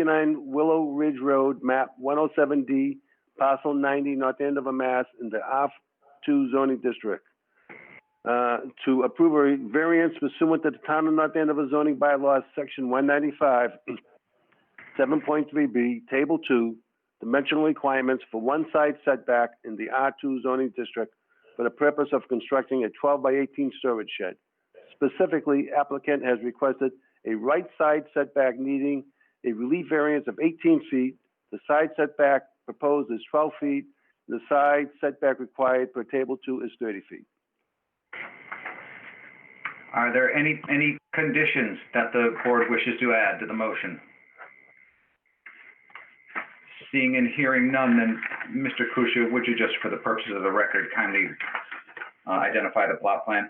69 Willow Ridge Road, map 107D, parcel 90, North Andover, Mass, in the R2 zoning district. Uh, To approve a variance pursuant to the Town of North Andover zoning bylaws, section 195, 7.3B, table 2, dimensional requirements for one side setback in the R2 zoning district for the purpose of constructing a 12 by 18 storage shed. Specifically, applicant has requested a right side setback needing a relief variance of 18 feet. The side setback proposed is 12 feet. The side setback required per table two is 30 feet. Are there any, any conditions that the board wishes to add to the motion? Seeing and hearing none, then, Mr. Kusia, would you just, for the purposes of the record, kindly uh, identify the plot plan?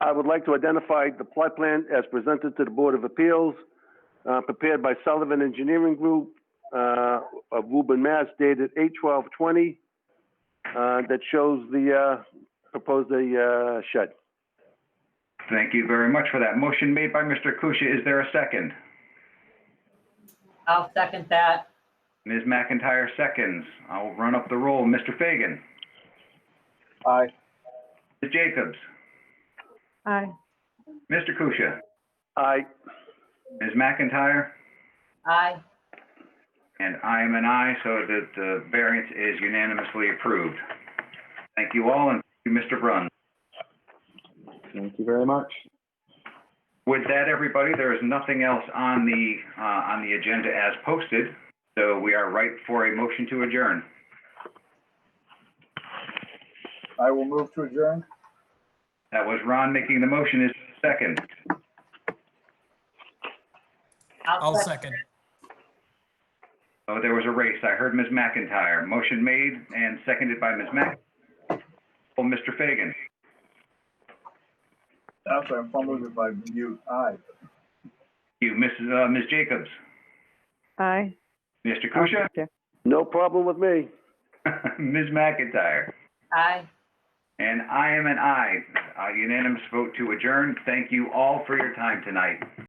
I would like to identify the plot plan as presented to the Board of Appeals, uh, prepared by Sullivan Engineering Group, uh, of Woburn, Mass, dated 8/12/20, uh, that shows the, uh, proposed the, uh, shed. Thank you very much for that. Motion made by Mr. Kusia. Is there a second? I'll second that. Ms. McIntyre seconds. I'll run up the roll. Mr. Fagan? Aye. Ms. Jacobs? Aye. Mr. Kusia? Aye. Ms. McIntyre? Aye. And I am an aye, so that the variance is unanimously approved. Thank you all, and thank you, Mr. Brunn. Thank you very much. With that, everybody, there is nothing else on the, uh, on the agenda as posted, so we are ripe for a motion to adjourn. I will move to adjourn. That was Ron making the motion. Is there a second? I'll second. Oh, there was a race. I heard Ms. McIntyre. Motion made and seconded by Ms. Mc. Oh, Mr. Fagan. I'm sorry, I'm fumbling with my mute. Aye. You, Mrs., uh, Ms. Jacobs. Aye. Mr. Kusia. No problem with me. Ms. McIntyre. Aye. And I am an aye. A unanimous vote to adjourn. Thank you all for your time tonight.